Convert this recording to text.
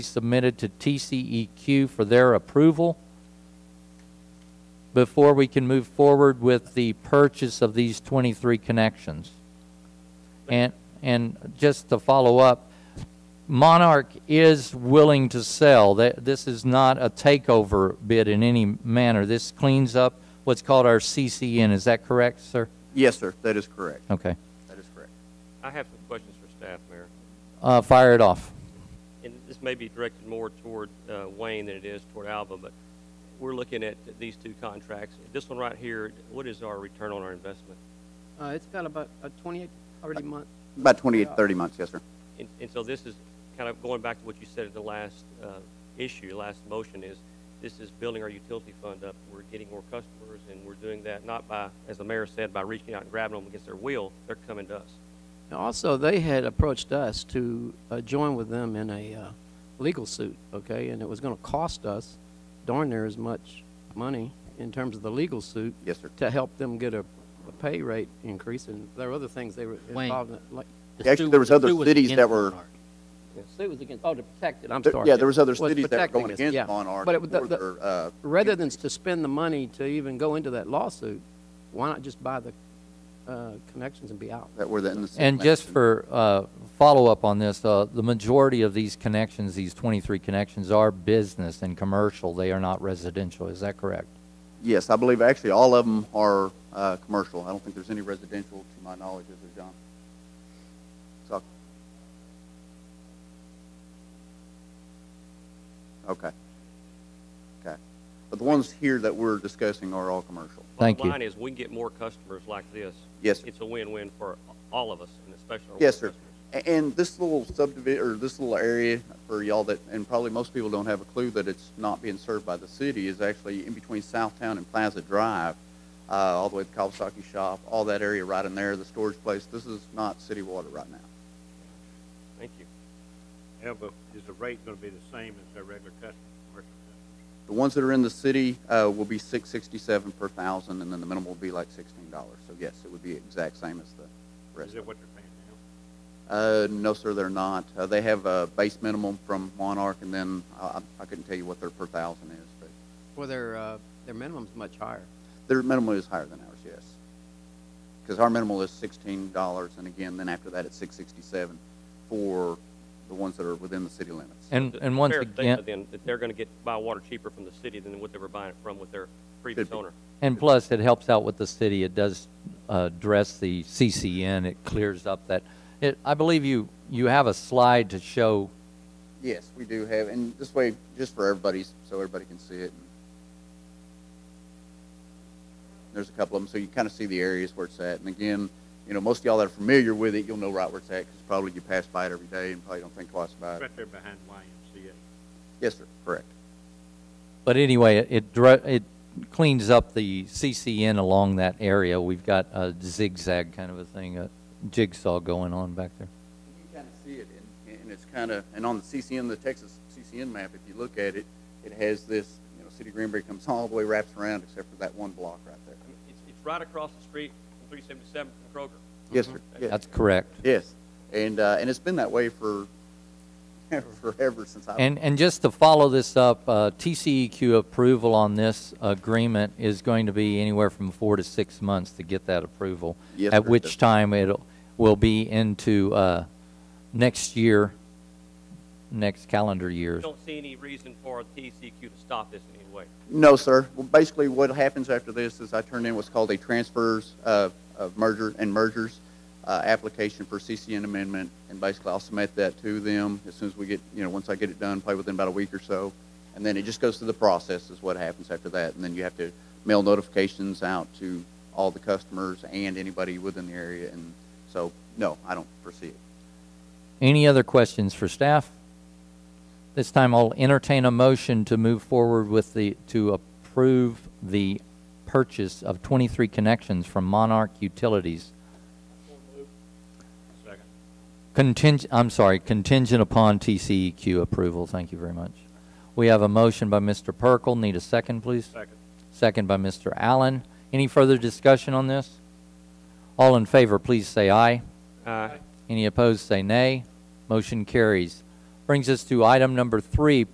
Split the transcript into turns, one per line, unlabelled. submitted to TCEQ for their approval before we can move forward with the purchase of these 23 connections. And, and just to follow up, Monarch is willing to sell. Th- This is not a takeover bid in any manner. This cleans up what's called our CCN. Is that correct, sir?
Yes, sir, that is correct.
Okay.
That is correct.
I have some questions for staff, Mayor,
Uh, Fire it off.
and this may be directed more toward uh, Wayne than it is toward Alva, but we're looking at these two contracts. This one right here, what is our return on our investment?
Uh, it's got about a twenty-eight already month.
About 28, 30 months, yes, sir.
And, and so this is kind of going back to what you said at the last uh, issue, last motion is, this is building our utility fund up. We're getting more customers, and we're doing that not by, as the mayor said, by reaching out and grabbing them against their will. They're coming to us.
And Also, they had approached us to uh, join with them in a uh, legal suit, okay? And it was going to cost us darn near as much money in terms of the legal suit
Yes, sir.
to help them get a, a pay rate increase. And there were other things they were
Wayne.
involved in, like
The
Actually,
stew-
there was
the
other
stew
cities that
against
were-
Monarch.
the suit was against. Oh, to protect it. I'm
There-
sorry.
Yeah, there was other
Was
cities that were
protecting
going
us,
against
yeah.
Monarch
But it- the-
for
the-
their, uh,
rather than to spend the money to even go into that lawsuit, why not just buy the uh, connections and be out?
that were in the. city
And just for
management.
uh, follow-up on this, uh, the majority of these connections, these 23 connections, are business and commercial. They are not residential. Is that correct?
Yes, I believe actually all of them are uh, commercial. I don't think there's any residential to my knowledge, is there, John? So- Okay. Okay. But the ones here that we're discussing are all commercial.
Thank you.
Bottom line is, we can get more customers like this.
Yes, sir.
It's a win-win for all of us, and especially our
Yes, sir.
water customers.
A- And this little subdivision, or this little area for y'all that, and probably most people don't have a clue that it's not being served by the city, is actually in between Southtown and Plaza Drive, uh, all the way to the Kawasaki Shop, all that area right in there, the storage place. This is not city water right now.
Thank you.
Yeah, but is the rate gonna be the same as their regular customer, commercial customer?
The ones that are in the city, uh, will be six sixty-seven per thousand, and then the minimum will be like sixteen dollars. So yes, it would be exact same as the rest
Is
of it.
that what they're
Uh,
paying now?
no, sir, they're not. Uh, they have a base minimum from Monarch, and then I, I- I couldn't tell you what their per thousand is, but
Well, their, uh, their minimum's much higher.
Their minimal is higher than ours, yes. Because our minimal is sixteen dollars, and again, then after that, it's six sixty-seven for the ones that are within the city limits.
And,
It's
and once
fair to think
again,
Then, that they're gonna get, buy water cheaper from the city than what they were buying it from with their previous
be.
owner.
and plus, it helps out with the city. It does uh, address the CCN. It clears up that, it, I believe you, you have a slide to show,
Yes, we do have, and this way, just for everybody's, so everybody can see it. There's a couple of them, so you kind of see the areas where it's at, and again, you know, most of y'all that are familiar with it, you'll know right where it's at, because probably you pass by it every day and probably don't think twice about it.
Right there behind YMCA.
Yes, sir, correct.
but anyway, it, dr- it cleans up the CCN along that area. We've got a zigzag kind of a thing, a jigsaw going on back there.
You kind of see it, and, and it's kind of, and on the CCN, the Texas CCN map, if you look at it, it has this, you know, City of Greenberg comes all the way, wraps around, except for that one block right there.
I mean, It's, it's right across the street from three seventy-seven from Kroger.
Yes, sir. Yes.
That's correct.
Yes. And, uh, and it's been that way for, forever since I.
And, and just to follow this up, uh, TCEQ approval on this agreement is going to be anywhere from four to six months to get that approval.
Yes,
At
sir.
which time it'll, will be into, uh, next year, next calendar year.
Don't see any reason for TCQ to stop this in any way.
No, sir. Well, basically, what happens after this is I turn in what's called a transfers uh, of merger and mergers uh, application for CCN amendment, and basically I'll submit that to them as soon as we get, you know, once I get it done, probably within about a week or so, and then it just goes through the process is what happens after that, and then you have to mail notifications out to all the customers and anybody within the area, and so no, I don't foresee it.
Any other questions for staff? This time I'll entertain a motion to move forward with the, to approve the purchase of 23 connections from Monarch Utilities.
Second.
Contingent, I'm sorry, contingent upon TCEQ approval. Thank you very much. We have a motion by Mr. Perkel. Need a second, please?
Second.
Second by Mr. Allen. Any further discussion on this? All in favor, please say aye.
Aye.
Any opposed, say nay. Motion carries. Refer- Brings us to item number three,